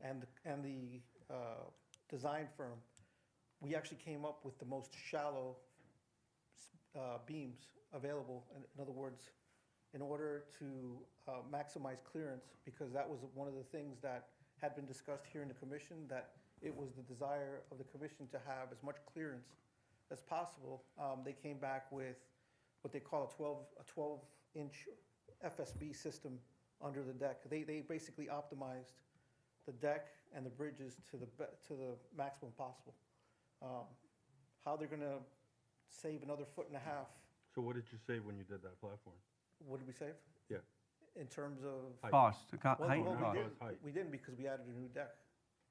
and, the- and the uh, design firm, we actually came up with the most shallow uh, beams available. In in other words, in order to uh, maximize clearance, because that was one of the things that had been discussed here in the commission, that it was the desire of the commission to have as much clearance as possible. Um, They came back with what they call a 12, a 12-inch FSB system under the deck. They, they basically optimized the deck and the bridges to the, be- to the maximum possible. Um, How they're going to save another foot and a half, So what did you say when you did that platform? what did we save? Yeah. In terms of. Height. Cost, co- Well, height well, and we cost. didn't- Height. We didn't because we added a new deck.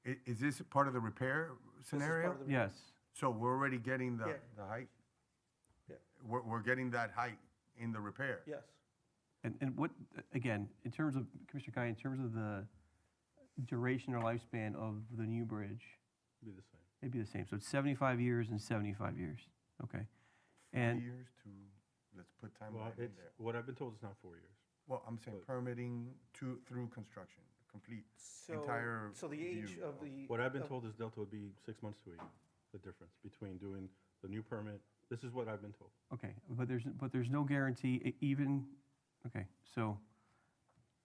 I- Is this part of the repair This is part scenario? of the- Yes, So we're already getting Yeah. the, the height? Yeah. We're, we're getting that height in the repair? Yes. and, and what, again, in terms of, Commissioner Guy, in terms of the duration or lifespan of the new bridge, Be the same. it'd be the same, so it's seventy-five years and seventy-five years, okay? Three And, years to, let's put Well, timeline in it's, there. what I've been told is not four years. Well, I'm saying permitting to, through construction, complete, So- entire So the age view of the. What I've been of- Oh. told is Delta would be six months to a year, the difference between doing the new permit. This is what I've been told. okay, but there's, but there's no guarantee e- even, okay, so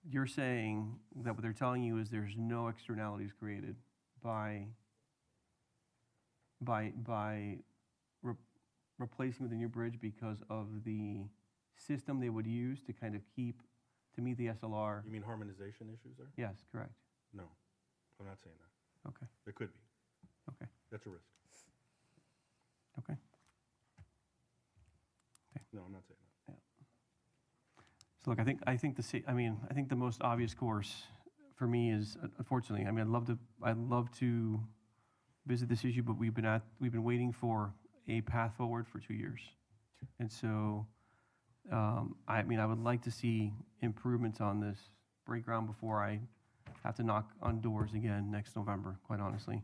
you're saying that what they're telling you is there's no externalities created by, by, by re- replacing with a new bridge because of the system they would use to kind of keep, to meet the You SLR? mean harmonization issues there? Yes, correct. No, I'm not saying that. Okay, There could be. okay, That's a risk. okay. No, I'm not saying that. Yeah. So look, I think, I think the, sa- I mean, I think the most obvious course for me is, uh, unfortunately, I mean, I'd love to, I'd love to visit this issue, but we've been at, we've been waiting for a path forward for two years. And so, um, I mean, I would like to see improvements on this, break ground before I have to knock on doors again next November, quite honestly.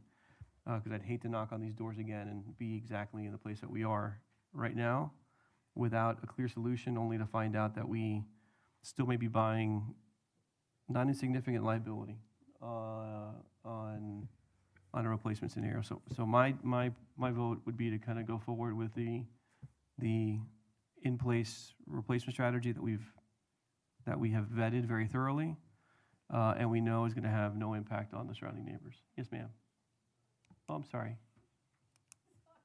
Because I'd hate to knock on these doors again and be exactly in the place that we are right now without a clear solution, only to find out that we still may be buying not insignificant liability uh, on on a replacement scenario. So so my my my vote would be to kind of go forward with the the in place replacement strategy that we've that we have vetted very thoroughly uh, and we know is going to have no impact on the surrounding neighbors. Yes, ma'am. Oh, I'm sorry.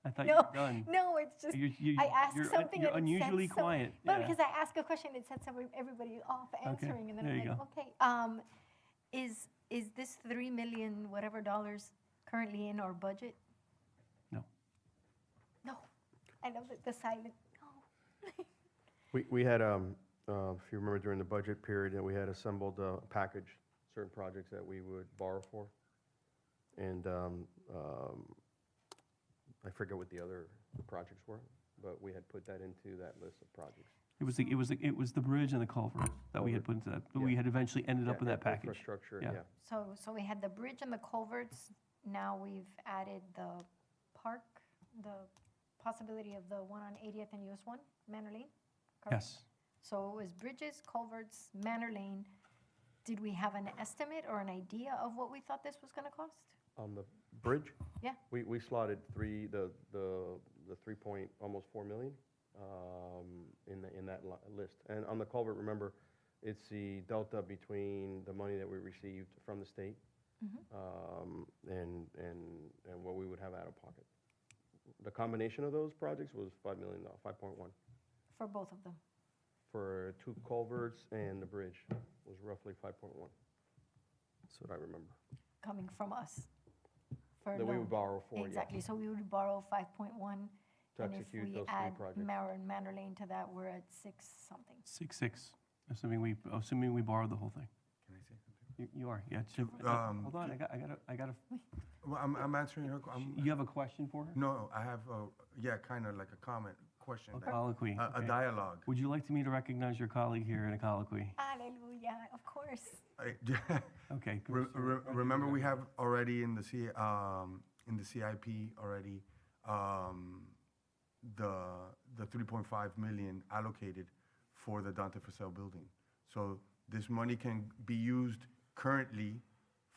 I thought you No, were done. no, it's just You- you- I asked you're un- something. you're and it said unusually so- quiet, yeah. No, because I asked a question. It said somebody, everybody off answering, and then there I'm you like, go. okay, um, is is this three million whatever dollars currently in our budget? No. No, I love it, the silent. No, We, we had, um, uh, if you remember during the budget period, that we had assembled a package, certain projects that we would borrow for. And, um, um, I forget what the other projects were, but we had put that into that list of projects. It was the, it was the, it was the bridge and the culvert that we had put into that. but We Yeah. had eventually ended up in Yeah, that package. Infrastructure, yeah. so so we had the bridge and the culverts. Now we've added the park, the possibility of the one on 80th and US One, Manor Lane. correct? Yes. So it was bridges, culverts, Manor Lane. Did we have an estimate or an idea of what we thought this was going to cost? On the bridge, Yeah, we, we slotted three, the, the, the three point, almost four million, um, in the, in that li- list. And on the culvert, remember, it's the delta between the money that we received from the state, Mm-hmm. um, and, and, and what we would have out of pocket. The combination of those projects was five million, five point one, for both of them. for two culverts and the bridge was roughly five point one. That's what I remember. coming from us. for That we loan. would borrow for, yeah. Exactly, so we would borrow 5.1. To And execute if those we three add projects. Mara and Manor Lane to that, we're at six something. Six, six, assuming we, assuming we borrowed the whole thing. Can I say something? You, you are, yeah. Jim, um, Hold on, I got, I got, a- I got a, Well, I'm, I'm answering her, I'm, you have a question for her? No, I have, a- yeah, kind of like a comment, question. A that- colloquy, A okay. a dialogue. Would you like to me to recognize your colleague here in a colloquy? Hallelujah, of course. I- Okay. good. Re- re- Remember, we have already in the C, um, in the CIP already, um, the, the 3.5 million allocated for the Dante Fussell building. So this money can be used currently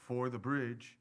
for the bridge